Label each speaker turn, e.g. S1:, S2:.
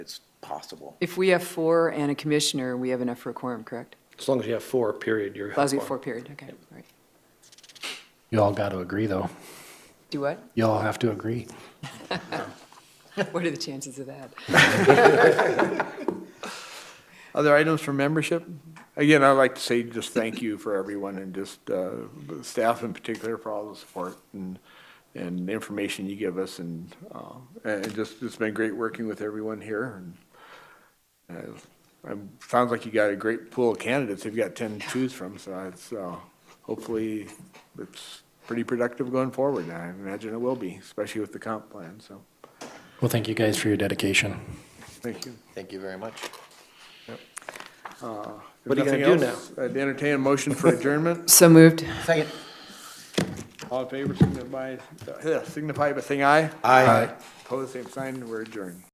S1: it's possible.
S2: If we have four and a commissioner, we have enough for a quorum, correct?
S3: As long as you have four, period, you're.
S2: Lousy four period, okay, all right.
S4: You all got to agree, though.
S2: Do what?
S4: You all have to agree.
S2: What are the chances of that?
S5: Other items for membership? Again, I'd like to say just thank you for everyone and just uh, the staff in particular for all the support and, and the information you give us and, uh, and it just, it's been great working with everyone here. and uh, I'm- Sounds like you got a great pool of candidates. You've got 10 to choose from, so it's, uh, hopefully it's pretty productive going forward. and I imagine it will be, especially with the comp plan, so
S4: Well, thank you guys for your dedication.
S5: thank you.
S6: Thank you very much.
S5: Uh,
S3: What are you gonna do
S5: now? I'd entertain a motion for adjournment.
S2: So moved.
S6: Second.
S5: All in favor, uh, signify, yeah, signify by saying aye.
S6: Aye.
S5: Opposed, same sign, we're adjourned.